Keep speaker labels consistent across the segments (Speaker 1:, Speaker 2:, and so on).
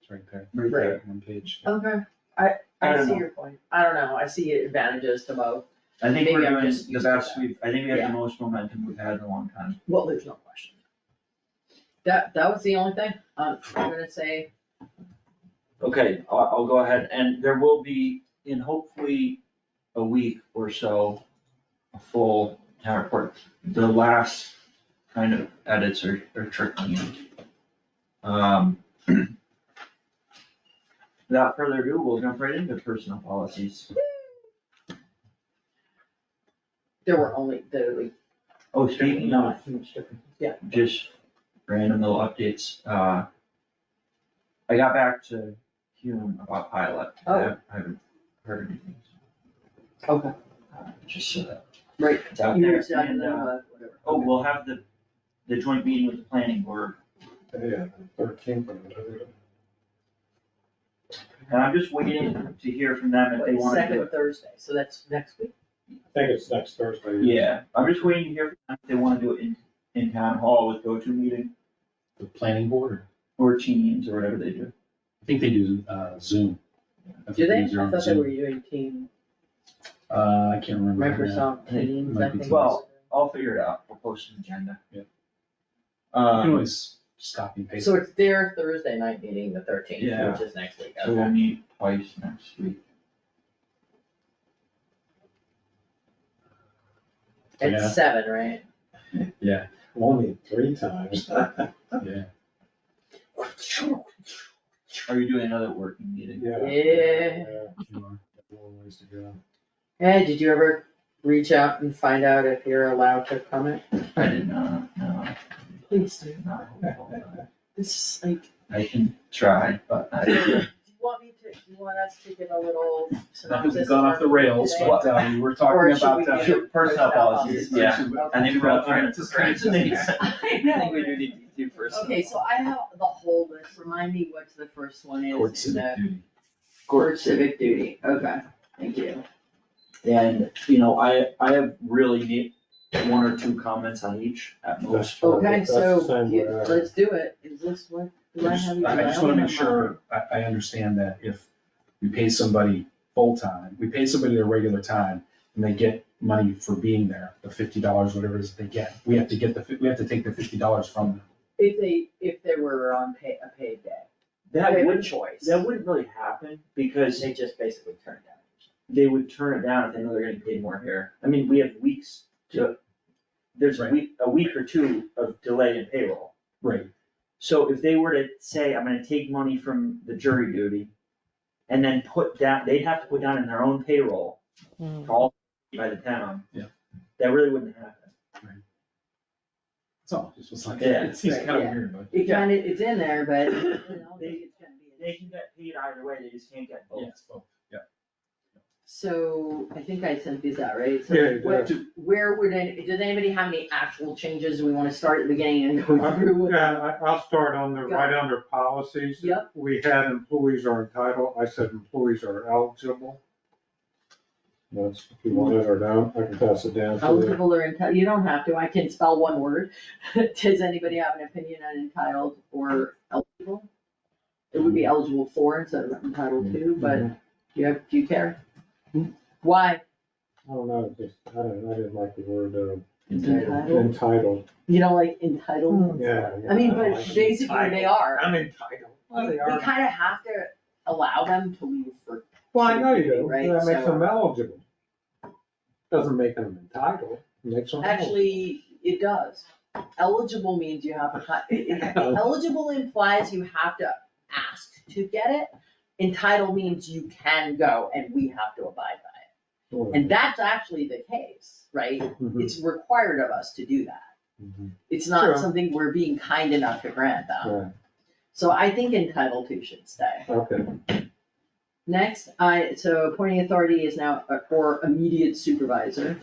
Speaker 1: It's right there.
Speaker 2: Right there.
Speaker 1: One page.
Speaker 3: Okay, I,
Speaker 2: I
Speaker 3: I
Speaker 2: don't
Speaker 3: see
Speaker 2: know.
Speaker 3: your point. I don't know, I see advantages to both.
Speaker 2: I think we're
Speaker 3: Maybe I'm
Speaker 2: doing
Speaker 3: just
Speaker 2: the
Speaker 3: used to
Speaker 2: best
Speaker 3: that.
Speaker 2: we've, I think we have
Speaker 3: Yeah.
Speaker 2: the most momentum we've had in a long time.
Speaker 3: Well, there's no question. That, that was the only thing, um, I'm gonna say,
Speaker 2: Okay, I'll, I'll go ahead, and there will be, in hopefully a week or so, a full town report. The last kind of edits are, are trickling in. Um. Without further ado, we'll jump right into personal policies.
Speaker 3: there were only, there were like
Speaker 2: Oh, speaking of
Speaker 3: Yeah.
Speaker 2: just random little updates, uh. I got back to Hume about pilot, I
Speaker 3: Oh.
Speaker 2: haven't- I haven't heard anything.
Speaker 3: Okay.
Speaker 2: Uh, Just so that.
Speaker 3: Right.
Speaker 2: It's out there,
Speaker 3: years down
Speaker 2: and,
Speaker 3: the,
Speaker 2: uh,
Speaker 3: uh, whatever.
Speaker 2: oh, we'll have the, the joint meeting with the planning board,
Speaker 1: Yeah, thirteen. Well,
Speaker 2: and I'm just waiting to hear from them if they wanna do
Speaker 3: Second
Speaker 2: it.
Speaker 3: Thursday, so that's next week.
Speaker 1: I think it's next Thursday.
Speaker 2: Yeah, I'm just waiting to hear from them if they wanna do it in, in town hall with go-to meeting,
Speaker 4: The planning board, or-
Speaker 2: or teams, or whatever they do.
Speaker 4: I think they do uh, Zoom. I think
Speaker 3: Do they? I
Speaker 4: use their own
Speaker 3: thought they
Speaker 4: Zoom.
Speaker 3: were doing team,
Speaker 4: Uh, I can't remember. right now.
Speaker 3: Microsoft
Speaker 2: Hey,
Speaker 3: Teams, I
Speaker 4: might be
Speaker 3: think.
Speaker 2: Well, I'll figure it out, we'll post an agenda.
Speaker 4: Yeah. You can
Speaker 2: Um,
Speaker 4: always just copy and paste.
Speaker 3: So it's their Thursday night meeting, the
Speaker 2: Yeah.
Speaker 3: thirteenth, which is next week,
Speaker 2: so
Speaker 3: okay.
Speaker 2: we'll meet twice next week.
Speaker 4: Yeah.
Speaker 3: At seven, right?
Speaker 1: Only three times.
Speaker 4: Yeah,
Speaker 2: Are you doing another working meeting?
Speaker 1: Yeah.
Speaker 3: Yeah.
Speaker 4: you are.
Speaker 1: Long ways to go.
Speaker 3: Hey, did you ever reach out and find out if you're allowed to comment?
Speaker 2: I did not, no,
Speaker 3: Please do.
Speaker 2: not hopeful, no.
Speaker 3: It's just like,
Speaker 2: I can try, but I,
Speaker 3: Do you want me to, you want us to give a little
Speaker 4: Not that
Speaker 3: synopsis?
Speaker 4: we've gone off the rails,
Speaker 3: today?
Speaker 4: but uh, we were
Speaker 3: Or
Speaker 4: talking
Speaker 3: should we
Speaker 4: about. uh,
Speaker 3: do-
Speaker 2: Sure, personal policies, yeah. I think we're all trying to
Speaker 4: Just-
Speaker 2: scratch the
Speaker 4: just-
Speaker 3: I
Speaker 2: I think
Speaker 3: know.
Speaker 2: we do need to do first.
Speaker 3: Okay, so I have the whole list, remind me what the first one is.
Speaker 4: Court
Speaker 3: in the-
Speaker 4: civic duty.
Speaker 3: Court civic duty, okay, thank you.
Speaker 2: And, you know, I, I have really need one or two comments on each at most.
Speaker 3: Okay,
Speaker 1: That's the
Speaker 3: so,
Speaker 1: same
Speaker 3: you-
Speaker 1: way I-
Speaker 3: let's do it, is this what, do I have? you-
Speaker 4: I just
Speaker 3: don't
Speaker 4: wanna
Speaker 3: have
Speaker 4: make
Speaker 3: mine.
Speaker 4: sure, I, I understand that if we pay somebody full-time, we pay somebody their regular time, and they get money for being there, the fifty dollars, whatever it is they get, we have to get the, fi- we have to take the fifty dollars from them.
Speaker 3: If they, if they were on pay, a paid day, they
Speaker 2: That
Speaker 3: have a
Speaker 2: would,
Speaker 3: choice,
Speaker 2: that wouldn't really happen because
Speaker 3: they just basically turned down.
Speaker 2: they would turn it down if they know they're gonna pay more here. I mean, we have weeks to, there's a
Speaker 4: Right.
Speaker 2: week, a week or two of delay in payroll.
Speaker 4: Right.
Speaker 2: So if they were to say, I'm gonna take money from the jury duty and then put down, they'd have to put down in their own payroll,
Speaker 3: Mm.
Speaker 2: all by the town.
Speaker 4: Yeah.
Speaker 2: That really wouldn't happen.
Speaker 4: That's all, just was like,
Speaker 2: Yeah.
Speaker 4: it seems
Speaker 3: Right,
Speaker 4: kind of
Speaker 3: yeah.
Speaker 4: weird, but.
Speaker 3: It kinda, it's in there, but, you know,
Speaker 2: They-
Speaker 3: it's gonna be.
Speaker 2: They can get paid either way, they just can't get both.
Speaker 4: Yes, well, yeah.
Speaker 3: So, I think I sent these out, right? So
Speaker 1: Yeah, you
Speaker 3: what-
Speaker 4: did.
Speaker 3: Where would, any- does anybody have any actual changes we wanna start at the beginning and go through? with?
Speaker 5: Yeah, I, I'll start on the, right under policies.
Speaker 3: Yep.
Speaker 5: We had employees are entitled, I said employees are eligible.
Speaker 1: That's, if you want it or down, I can pass it down to you.
Speaker 3: Eligible or entitled, you don't have to, I can spell one word. Does anybody have an opinion on entitled or eligible? It would be eligible for instead of entitled to, but do you have, do you care? Why?
Speaker 1: I don't know, just, I don't, I didn't like the word, uh,
Speaker 3: Entitled?
Speaker 1: entitled.
Speaker 3: You don't like entitled?
Speaker 1: Yeah.
Speaker 3: I mean,
Speaker 1: don't
Speaker 3: but
Speaker 1: like it.
Speaker 3: basically they are.
Speaker 5: I'm entitled.
Speaker 3: We we kinda have to allow them to leave for,
Speaker 5: Well, I know you do,
Speaker 3: Right,
Speaker 5: but that makes
Speaker 3: so-
Speaker 5: them eligible. Doesn't make them entitled, makes them. eligible.
Speaker 3: actually, it does. Eligible means you have a, hi- eligible implies you have to ask to get it. Entitled means you can go and we have to abide by it. And that's actually the case, right?
Speaker 5: Mm-hmm.
Speaker 1: Mhm,
Speaker 3: It's required of us to do that.
Speaker 1: mhm.
Speaker 3: It's not
Speaker 5: Sure.
Speaker 3: something we're being kind enough to grant them.
Speaker 1: Right,
Speaker 3: So I think entitled to should stay.
Speaker 1: okay.
Speaker 3: Next, I, so appointing authority is now uh, or immediate supervisor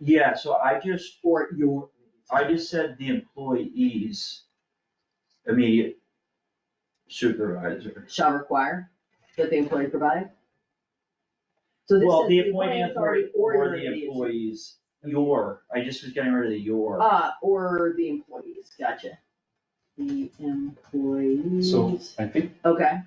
Speaker 2: Yeah, so I just,
Speaker 3: or your.
Speaker 2: I just said the employees immediate supervisor.
Speaker 3: Shall require that the employee provide. So this
Speaker 2: Well,
Speaker 3: is
Speaker 2: the appointing authority or
Speaker 3: your
Speaker 2: the
Speaker 3: immediate supervisor.
Speaker 2: employees, your, I just was getting rid of the your.
Speaker 3: Uh, or the employees, gotcha. The employees,
Speaker 4: I think
Speaker 3: okay,